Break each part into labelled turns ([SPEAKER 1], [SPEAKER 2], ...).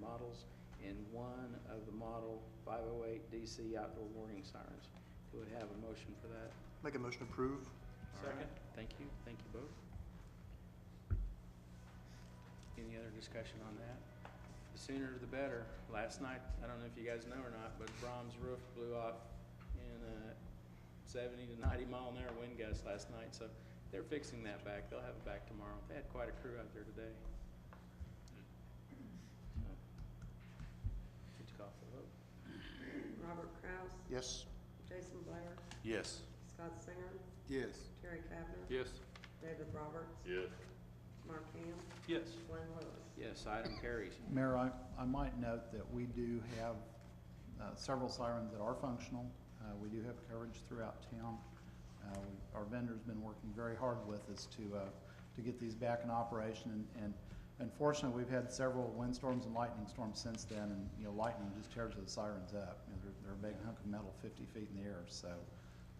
[SPEAKER 1] models and one of the model 508 DC outdoor warning sirens. Do we have a motion for that?
[SPEAKER 2] Make a motion to approve.
[SPEAKER 1] All right. Thank you, thank you both. Any other discussion on that? The sooner the better. Last night, I don't know if you guys know or not, but Brahms roof blew off in a seventy to ninety mile an hour wind gust last night, so they're fixing that back. They'll have it back tomorrow. They had quite a crew out there today. So, Need to call for the vote.
[SPEAKER 3] Robert Kraus,
[SPEAKER 2] Yes.
[SPEAKER 3] Jason Blair,
[SPEAKER 4] Yes.
[SPEAKER 3] Scott Singer,
[SPEAKER 2] Yes.
[SPEAKER 3] Terry Kavner,
[SPEAKER 4] Yes.
[SPEAKER 3] David Roberts,
[SPEAKER 4] Yes.
[SPEAKER 3] Mark Ham,
[SPEAKER 4] Yes.
[SPEAKER 3] Glenn Lewis.
[SPEAKER 1] Yes, item carries.
[SPEAKER 5] Mayor, I, I might note that we do have uh, several sirens that are functional. Uh, We do have coverage throughout town. Uh, we- Our vendor's been working very hard with us to, uh, to get these back in operation. and- And unfortunately, we've had several windstorms and lightning storms since then. And, you know, lightning just tears the sirens up. You know, they're, they're a big hunk of metal fifty feet in the air. So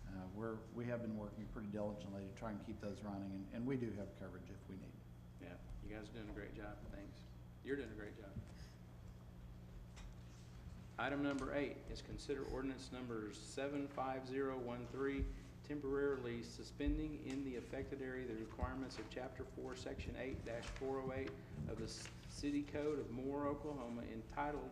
[SPEAKER 5] uh, we're, we have been working pretty diligently to try and keep those running. and- And we do have coverage if we need.
[SPEAKER 1] Yeah, you guys are doing a great job, thanks. You're doing a great job. Item number eight is consider ordinance number seven five zero one three, temporarily suspending in the affected area the requirements of chapter four, section eight four oh eight of the S- city code of Moore, Oklahoma entitled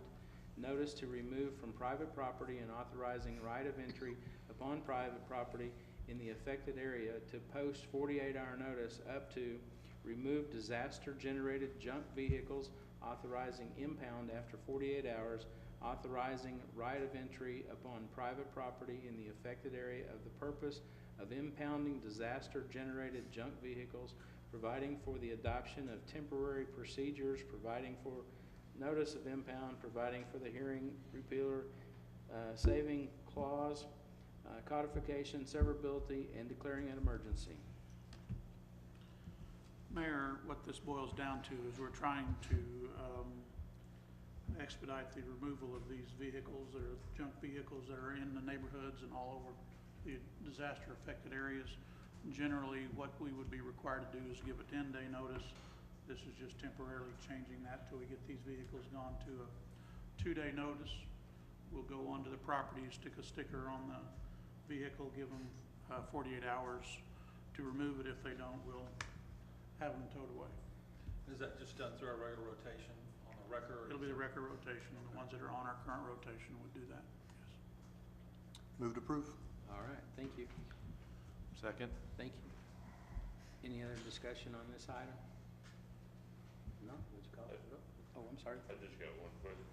[SPEAKER 1] Notice to Remove from Private Property and Authorizing Right of Entry upon Private Property in the affected area to post forty-eight hour notice up to remove disaster-generated junk vehicles, authorizing impound after forty-eight hours, authorizing right of entry upon private property in the affected area of the purpose of impounding disaster-generated junk vehicles, providing for the adoption of temporary procedures, providing for notice of impound, providing for the hearing repealer, uh, saving clause, uh, codification, severability, and declaring an emergency.
[SPEAKER 6] Mayor, what this boils down to is we're trying to um, expedite the removal of these vehicles, that are junk vehicles that are in the neighborhoods and all over the disaster-affected areas. Generally, what we would be required to do is give a ten-day notice. This is just temporarily changing that till we get these vehicles gone to a two-day notice. We'll go onto the property, stick a sticker on the vehicle, give them uh, forty-eight hours to remove it. If they don't, we'll have them towed away.
[SPEAKER 4] Is that just done through our regular rotation on the record?
[SPEAKER 6] It'll be the record rotation, and the ones that are on our current rotation would do that, yes.
[SPEAKER 2] Move to approve.
[SPEAKER 1] All right, thank you.
[SPEAKER 4] Second?
[SPEAKER 1] Thank you. Any other discussion on this item? No, would you call it? Oh, I'm sorry.
[SPEAKER 7] I just got one question.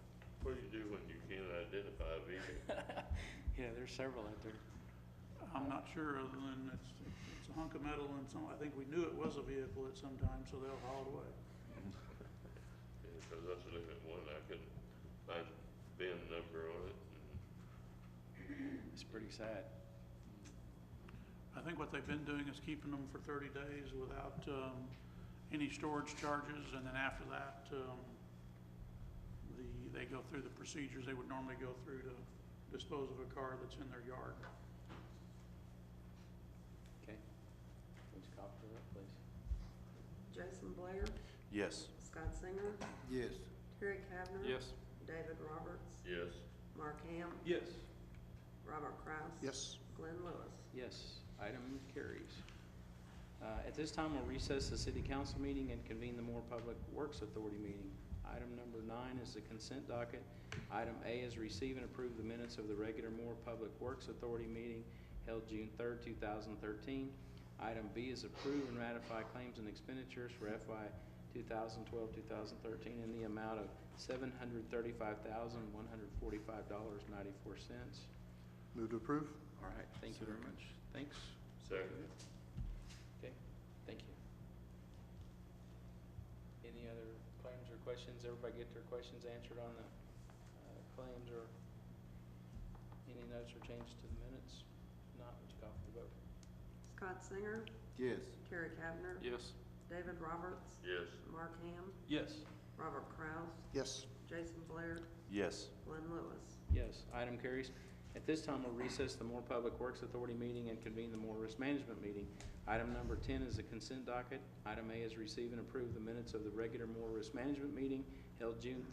[SPEAKER 7] What do you do when you can't identify a vehicle?
[SPEAKER 1] Yeah, there's several out there.
[SPEAKER 6] I'm not sure, other than it's, it's a hunk of metal and some, I think we knew it was a vehicle at some time, so they'll haul it away.
[SPEAKER 7] Because I was looking at one, I couldn't find VIN number on it.
[SPEAKER 1] It's pretty sad.
[SPEAKER 6] I think what they've been doing is keeping them for thirty days without, um, any storage charges, and then after that, um, the, they go through the procedures they would normally go through to dispose of a car that's in their yard.
[SPEAKER 1] Okay. Would you call for the vote, please?
[SPEAKER 3] Jason Blair,
[SPEAKER 4] Yes.
[SPEAKER 3] Scott Singer,
[SPEAKER 2] Yes.
[SPEAKER 3] Terry Kavner.
[SPEAKER 4] Yes.
[SPEAKER 3] David Roberts,
[SPEAKER 7] Yes,
[SPEAKER 3] Mark Ham,
[SPEAKER 4] Yes.
[SPEAKER 3] Robert Kraus.
[SPEAKER 2] Yes.
[SPEAKER 3] Glenn Lewis.
[SPEAKER 1] Yes, item carries. Uh, At this time, we'll recess the city council meeting and convene the Moore Public Works Authority meeting. Item number nine is the consent docket. Item A is receive and approve the minutes of the regular Moore Public Works Authority meeting held June third, two thousand thirteen. Item B is approve and ratify claims and expenditures for FY 2012, 2013 in the amount of $735,145.94.
[SPEAKER 2] Move to approve.
[SPEAKER 1] All right, thank you very much. Thanks.
[SPEAKER 7] second.
[SPEAKER 1] Okay, thank you. Any other claims or questions? Everybody get their questions answered on the uh, claims or any notes or changes to the minutes? Not, would you call for the vote?
[SPEAKER 3] Scott Singer,
[SPEAKER 2] Yes.
[SPEAKER 3] Terry Kavner,
[SPEAKER 4] Yes.
[SPEAKER 3] David Roberts,
[SPEAKER 7] Yes,
[SPEAKER 3] Mark Ham,
[SPEAKER 4] Yes.
[SPEAKER 3] Robert Kraus,
[SPEAKER 2] Yes.
[SPEAKER 3] Jason Blair,
[SPEAKER 4] Yes.
[SPEAKER 3] Glenn Lewis.
[SPEAKER 1] Yes, item carries. At this time, we'll recess the Moore Public Works Authority meeting and convene the Moore Risk Management meeting. Item number ten is a consent docket. Item A is receive and approve the minutes of the regular Moore Risk Management meeting held June